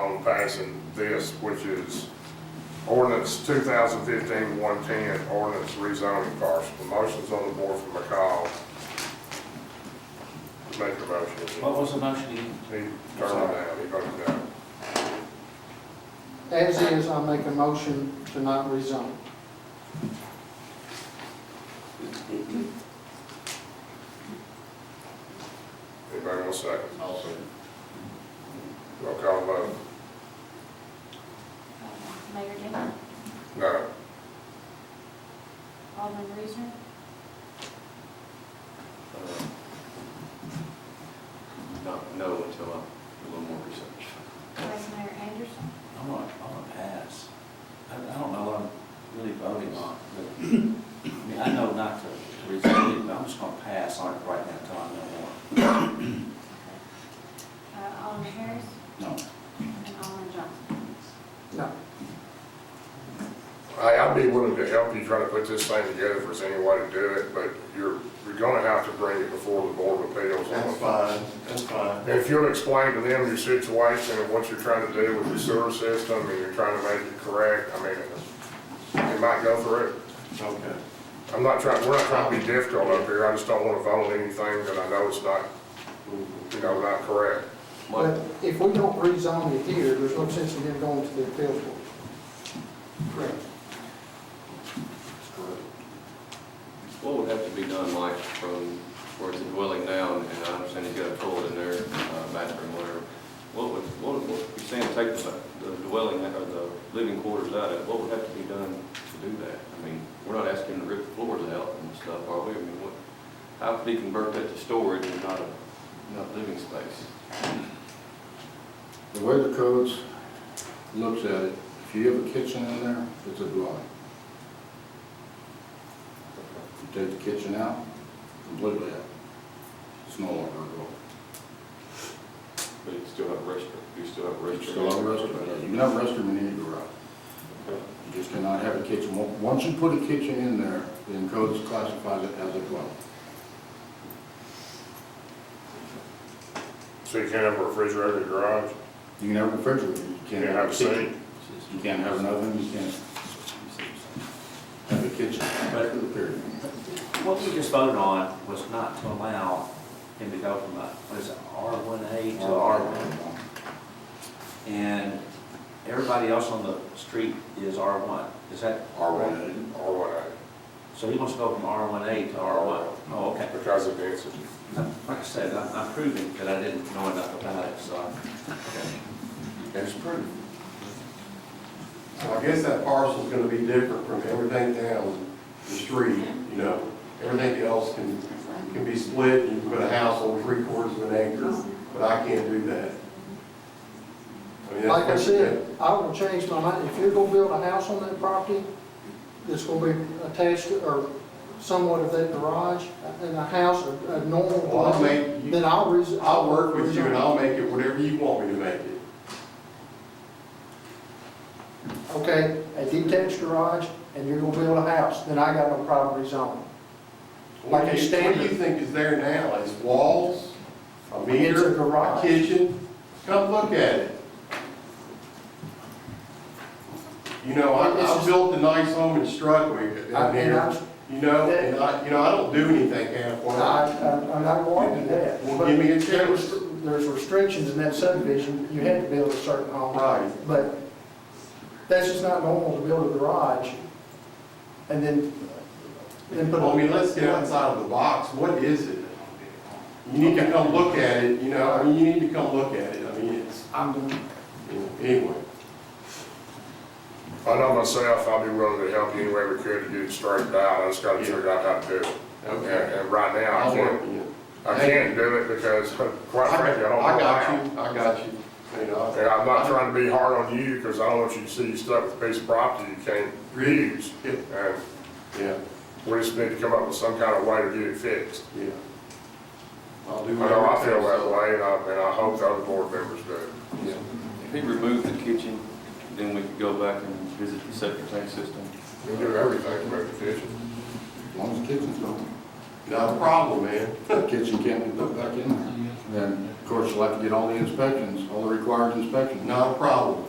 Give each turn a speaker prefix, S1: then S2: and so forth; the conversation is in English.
S1: on passing this, which is ordinance 2015-110, ordinance rezoning parcel. Motion's on the board from McCall. Make your motion.
S2: What was the motion again?
S1: He turned it down, he voted down.
S3: As is, I make a motion to not rezone.
S1: Anybody want to second? Roll call vote.
S4: Uh, Mayor Denne,
S1: No.
S4: Alderman Reesner,
S5: Don't know until I do a little more research.
S4: Vice Mayor Anderson,
S2: I'm gonna, I'm gonna pass. I, I don't know what I'm really voting on, but, I mean, I know not to resign, it, but I'm just gonna pass on it right now until I know
S4: uh, Alderman Harris,
S2: more. No.
S4: and Alderman Johnson.
S3: No.
S1: Hey, I'd be willing to help you try to put this thing together if there's any way to do it, but you're, you're gonna have to bring it before the Board of Appeals.
S6: That's fine, that's fine.
S1: If you'll explain to them your situation and what you're trying to do with your sewer system, and you're trying to make it correct, I mean, it might go through it.
S6: Okay.
S1: I'm not trying, we're not trying to be difficult up here, I just don't wanna vote on anything that I know is not, you know, not correct.
S3: But
S5: What,
S3: if we don't rezone it here, there's no sense in them going to the appeals board. Correct.
S5: what would have to be done, Mike, from where it's a dwelling now, and I understand he's got a toilet in there, uh, bathroom, whatever. What would, what would, what- you're saying take the the dwelling, or the living quarters out of it, what would have to be done to do that? I mean, we're not asking him to rip the floors out and stuff, are we? I mean, what, how could he convert that to storage and not a, not living space?
S7: The way the codes looks at it, if you have a kitchen in there, it's a dwelling. You take the kitchen out, completely out, it's no longer a dwelling.
S5: But you still have a restroom, you still have a restroom.
S7: You still have a restroom, yeah, you can have a restroom in any garage.
S5: Okay.
S7: You just cannot have a kitchen. Once- Once you put a kitchen in there, then codes classifies it as a dwelling.
S1: So you can't have a refrigerator in your garage,
S7: You can have a refrigerator, you
S1: you can't
S7: can't
S1: have a sink.
S7: kitchen. You can't have an oven, you can't have a kitchen, back to the period.
S2: What we just voted on was not to allow him to go from a, what is it, R one A to R one. And everybody else on the street is R one. Is that?
S7: R one.
S1: Or what,
S2: So he wants to go from R one A to R one. Oh, okay.
S1: because of density.
S2: Like I said, I'm I'm proving that I didn't know enough about it, so. I-
S7: It's proof.
S6: So I guess that parcel's gonna be different from everything down the street, you know. Everything else can, can be split, you can put a house on three quarters of an acre, but I can't do that. mean, that's
S3: Like I
S6: what-
S3: said, I will change my mind. If you're gonna build a house on that property, that's gonna be attached to, or somewhat of that garage, and a house, a a normal
S6: Well, I'll
S3: dwelling,
S6: make-
S3: then I'll rezone.
S6: I'll work with you and I'll make it whatever you want me to make it.
S3: Okay, a detached garage, and you're gonna build a house, then I got no problem rezoning.
S6: What
S3: Like a
S6: do you, what do you
S3: standard.
S6: think is there now? Is walls, a
S3: It's a
S6: meter, a
S3: garage.
S6: kitchen? Come look at it. You know, I,
S3: It's
S6: I
S3: just-
S6: built a nice home in Strudwick
S3: I-
S6: down
S3: and
S6: here,
S3: I-
S6: you know, and I, you know, I don't do anything halfway.
S3: I, I, I'm not going to that.
S6: Well, give me a check.
S3: There was- There's restrictions in that subdivision, you had to build a certain home.
S6: Right.
S3: But that's just not normal to build a garage and then, then put.
S6: Well, I mean, let's get outside of the box, what is it? You need to come look at it, you know, I mean, you need to come look at it, I mean, it's,
S3: I'm gonna
S6: anyway.
S1: I know myself, I'll be willing to help you any way we could to get it straightened out, I just gotta figure out how to do it. And, and right now, I
S6: I'll work
S1: can't,
S6: with you.
S1: I can't do it because, quite frankly, I don't know
S6: I
S1: how.
S6: got you, I got you. You know,
S1: And I'm not trying to be hard on you, because I don't want you to see you stuck with a piece of property you can't reuse.
S6: Yeah.
S1: And
S6: Yeah,
S1: we just need to come up with some kind of way to get it fixed.
S6: yeah. I'll
S1: I
S6: do
S1: know I feel
S6: whatever
S1: that way, and I, and I hope the other board members do.
S6: it takes.
S5: If he removed the kitchen, then we could go back and visit the septic tank system.
S1: We do everything to make the kitchen.
S7: As long as the kitchen's open.
S6: Yeah. Not a problem, man.
S7: The kitchen can't be put back in there. Then Of course, you'll have to get all the inspections, all the required inspections.
S6: Not a problem.